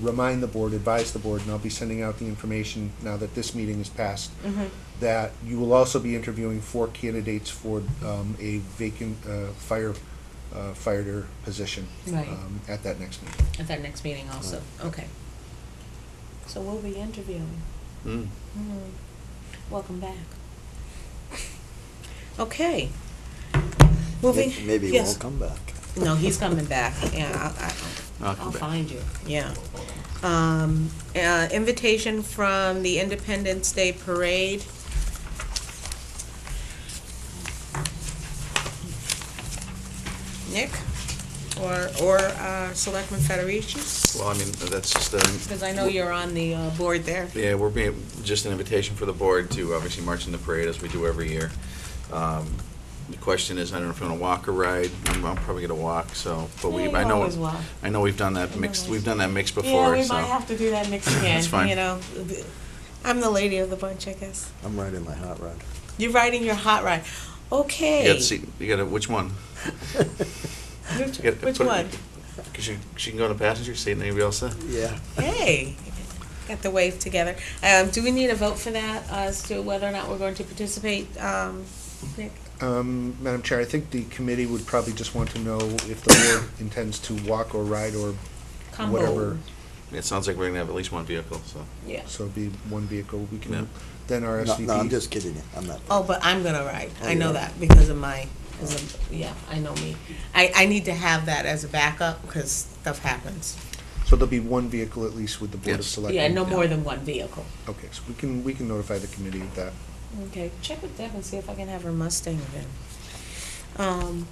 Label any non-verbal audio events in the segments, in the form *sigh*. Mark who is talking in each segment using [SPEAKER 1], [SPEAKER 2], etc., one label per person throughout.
[SPEAKER 1] remind the board, advise the board, and I'll be sending out the information now that this meeting is passed,
[SPEAKER 2] Mm-hmm.
[SPEAKER 1] that you will also be interviewing four candidates for um, a vacant uh, fire, uh, fighter position
[SPEAKER 3] Right.
[SPEAKER 1] um, at that next meeting.
[SPEAKER 3] At that next meeting also, okay. So we'll be interviewing.
[SPEAKER 2] Mm.
[SPEAKER 3] Hmm. Welcome back. Okay. Moving.
[SPEAKER 2] May- Maybe he
[SPEAKER 3] yes.
[SPEAKER 2] won't come back.
[SPEAKER 3] No, he's coming back, yeah, I- I-
[SPEAKER 2] I'll
[SPEAKER 3] I'll
[SPEAKER 2] come back.
[SPEAKER 3] find you, yeah. Um, uh, Invitation from the Independence Day Parade. Nick, or, or uh, Selectman Federici?
[SPEAKER 4] Well, I mean, that's just, um,
[SPEAKER 3] Because I know you're on the uh, board there.
[SPEAKER 4] yeah, we're being, just an invitation for the board to obviously march in the parade as we do every year. Um, The question is, I don't know if I'm gonna walk or ride, I'm, I'm probably gonna walk, so, but we,
[SPEAKER 3] Yeah, you
[SPEAKER 4] I know,
[SPEAKER 3] always walk.
[SPEAKER 4] I know we've done that mixed, we've done that mix
[SPEAKER 3] Yeah,
[SPEAKER 4] before,
[SPEAKER 3] we might
[SPEAKER 4] so.
[SPEAKER 3] have to do that next again,
[SPEAKER 4] That's fine.
[SPEAKER 3] you know. I'm the lady of the bunch, I guess.
[SPEAKER 2] I'm riding my
[SPEAKER 3] *laughs*
[SPEAKER 2] hot rod.
[SPEAKER 3] You're riding your hot ride.
[SPEAKER 4] You
[SPEAKER 3] Okay.
[SPEAKER 4] gotta see, you gotta, which one?
[SPEAKER 3] Which,
[SPEAKER 4] You gotta
[SPEAKER 3] which
[SPEAKER 4] put it-
[SPEAKER 3] one?
[SPEAKER 4] Cause you, she can go in the passenger seat and anybody else there.
[SPEAKER 2] Yeah.
[SPEAKER 4] *laughs*
[SPEAKER 3] Hey, got the wave together. Um, do we need a vote for that uh, as to whether or not we're going to participate, um, Nick?
[SPEAKER 1] Um, Madam Chair, I think the committee would probably just want to know if the
[SPEAKER 2] *coughs*
[SPEAKER 1] board intends to walk or ride or
[SPEAKER 3] Combo.
[SPEAKER 1] whatever.
[SPEAKER 4] It sounds like we're gonna have at least one vehicle, so.
[SPEAKER 3] Yeah.
[SPEAKER 1] So it'd be one vehicle, we
[SPEAKER 4] Yeah.
[SPEAKER 1] can, then
[SPEAKER 2] No,
[SPEAKER 1] RSVP.
[SPEAKER 2] no, I'm just kidding you. I'm not.
[SPEAKER 3] Oh, but I'm gonna ride. I
[SPEAKER 2] Oh,
[SPEAKER 3] know
[SPEAKER 2] yeah.
[SPEAKER 3] that because of my, 'cause of- yeah, I know me. I, I need to have that as a backup because stuff happens.
[SPEAKER 1] So there'll be one vehicle at least with the Board of
[SPEAKER 4] Yes.
[SPEAKER 1] Selectmen.
[SPEAKER 3] Yeah, no more than one vehicle.
[SPEAKER 1] Okay, so we can, we can notify the committee of that.
[SPEAKER 3] Okay, check with Deb and see if I can have her Mustang again. Um,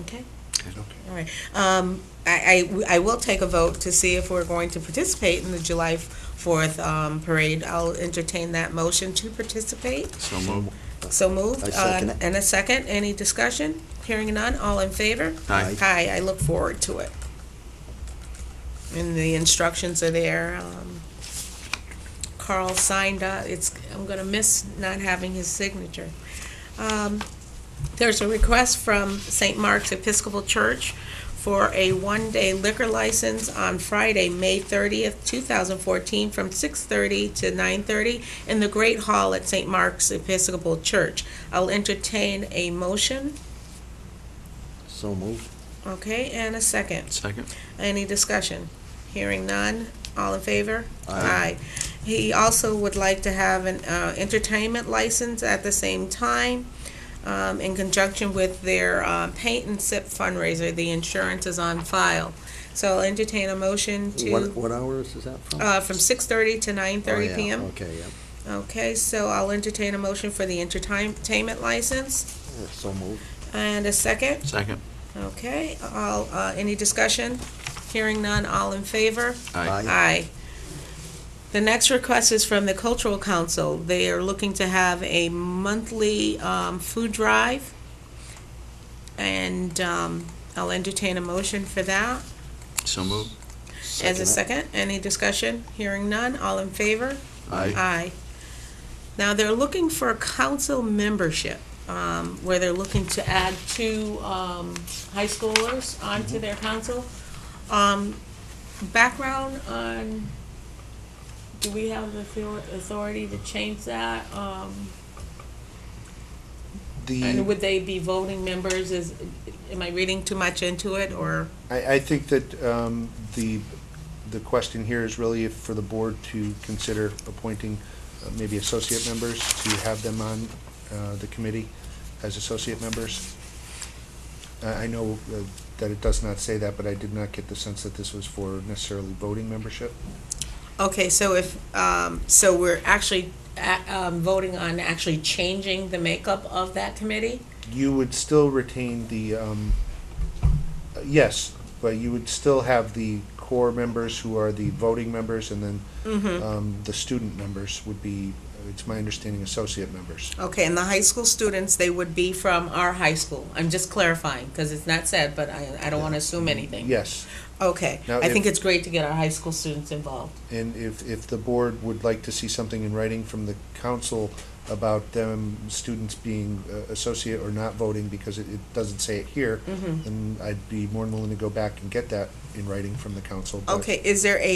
[SPEAKER 3] okay.
[SPEAKER 1] Okay.
[SPEAKER 3] All right. Um, I, I, I will take a vote to see if we're going to participate in the July 4th um, parade. I'll entertain that motion to participate.
[SPEAKER 4] So move.
[SPEAKER 3] So moved.
[SPEAKER 2] I second
[SPEAKER 3] Uh,
[SPEAKER 2] it.
[SPEAKER 3] And a second. Any discussion? Hearing none. All in favor?
[SPEAKER 4] Aye.
[SPEAKER 3] Aye. I look forward to it. And the instructions are there. Um, Carl signed up. It's, I'm going to miss not having his signature. Um, There's a request from St. Mark's Episcopal Church for a one-day liquor license on Friday, May 30th, 2014, from 6:30 to 9:30 in the Great Hall at St. Mark's Episcopal Church. I'll entertain a motion,
[SPEAKER 2] So moved.
[SPEAKER 3] okay, and a second.
[SPEAKER 4] Second?
[SPEAKER 3] Any discussion? Hearing none, all in favor?
[SPEAKER 2] Aye.
[SPEAKER 3] He also would like to have an uh, entertainment license at the same time um, in conjunction with their uh, paint and sip fundraiser. The insurance is on file. So I'll entertain a motion
[SPEAKER 2] What,
[SPEAKER 3] to,
[SPEAKER 2] what hours is that from?
[SPEAKER 3] uh, from 6:30 to 9:30
[SPEAKER 2] Oh, yeah,
[SPEAKER 3] PM.
[SPEAKER 2] Okay, yeah.
[SPEAKER 3] Okay, so I'll entertain a motion for the entertainment license
[SPEAKER 2] Yeah, So moved.
[SPEAKER 3] and a second.
[SPEAKER 4] Second?
[SPEAKER 3] Okay, all, uh, any discussion? Hearing none, all in favor?
[SPEAKER 2] Aye.
[SPEAKER 3] Aye. The next request is from the Cultural Council. They are looking to have a monthly um, food drive, and um, I'll entertain a motion for that.
[SPEAKER 4] So move.
[SPEAKER 3] As a
[SPEAKER 2] it.
[SPEAKER 3] second, any discussion? Hearing none, all in favor?
[SPEAKER 4] Aye.
[SPEAKER 3] Aye. Now, they're looking for council membership, um, where they're looking to add two um, high schoolers onto their council. Um, Background on, do we have the author- authority to change that? Um, And
[SPEAKER 1] The,
[SPEAKER 3] would they be voting members? Is, am I reading too much into it, or?
[SPEAKER 1] I, I think that, um, the, the question here is really if for the board to consider appointing uh, maybe associate members to have them on, uh, the committee as associate members. I, I know uh, that it does not say that, but I did not get the sense that this was for necessarily voting membership.
[SPEAKER 3] Okay, so if, um, so we're actually uh, um, voting on actually changing the makeup of that committee?
[SPEAKER 1] you would still retain the, um, uh, yes, but you would still have the core members who are the voting members, and then, um, the student members would be, uh, it's my understanding, associate members.
[SPEAKER 3] Okay, and the high school students, they would be from our high school. I'm just clarifying, because it's not said, but I, I don't want to assume anything.
[SPEAKER 1] Yes,
[SPEAKER 3] Okay,
[SPEAKER 1] Now,
[SPEAKER 3] I think
[SPEAKER 1] if-
[SPEAKER 3] it's great to get our high school students involved.
[SPEAKER 1] and if, if the board would like to see something in writing from the council about them, students being uh, associate or not voting, because it, it doesn't say it here,
[SPEAKER 3] Mhm.
[SPEAKER 1] then I'd be more than willing to go back and get that in writing from the council. but-
[SPEAKER 3] Okay, is there a